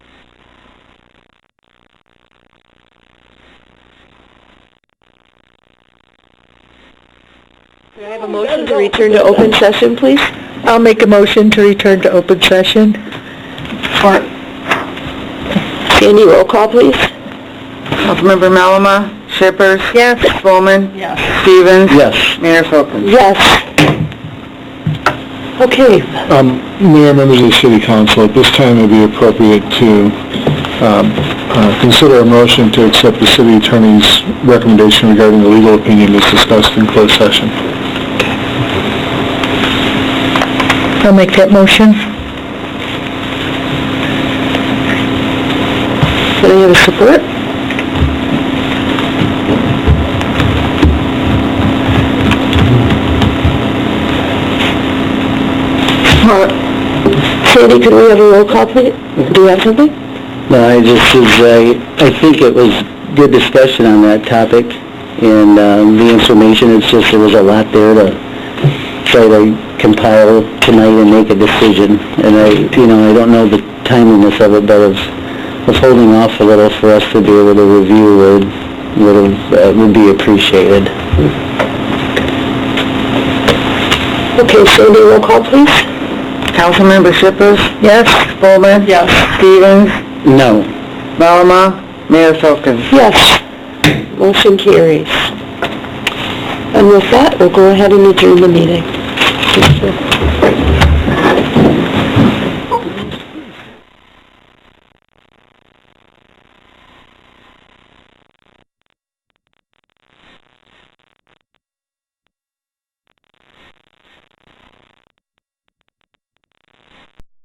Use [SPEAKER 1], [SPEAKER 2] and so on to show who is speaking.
[SPEAKER 1] Can I have a motion to return to open session, please? I'll make a motion to return to open session. Sandy, roll call, please.
[SPEAKER 2] Councilmember Malama, Shippers.
[SPEAKER 1] Yes.
[SPEAKER 2] Bowman.
[SPEAKER 1] Yes.
[SPEAKER 2] Stevens.
[SPEAKER 3] Yes.
[SPEAKER 2] Mayor Folkins.
[SPEAKER 1] Yes. Okay,
[SPEAKER 3] Um, Mayor, members of the city council, at this time it would be appropriate to, um, uh, consider a motion to accept the city attorney's recommendation regarding the legal opinion as discussed in closed session.
[SPEAKER 1] I'll make that motion. Do I have a support? Sandy, can we have a roll call, please? Do you have something?
[SPEAKER 4] No, I just, is, I, I think it was good discussion on that topic, and, um, the information, it's just, there was a lot there to try to compile tonight and make a decision, and I, you know, I don't know the timeliness of it, but of, of holding off a little for us to be able to review would, would, uh, would be appreciated.
[SPEAKER 1] Okay, Sandy, roll call, please?
[SPEAKER 2] Councilmember Shippers.
[SPEAKER 1] Yes.
[SPEAKER 2] Bowman.
[SPEAKER 1] Yes.
[SPEAKER 2] Stevens.
[SPEAKER 4] No.
[SPEAKER 2] Malama, Mayor Folkins.
[SPEAKER 1] Yes. Motion carries. And with that, we'll go ahead and adjourn the meeting.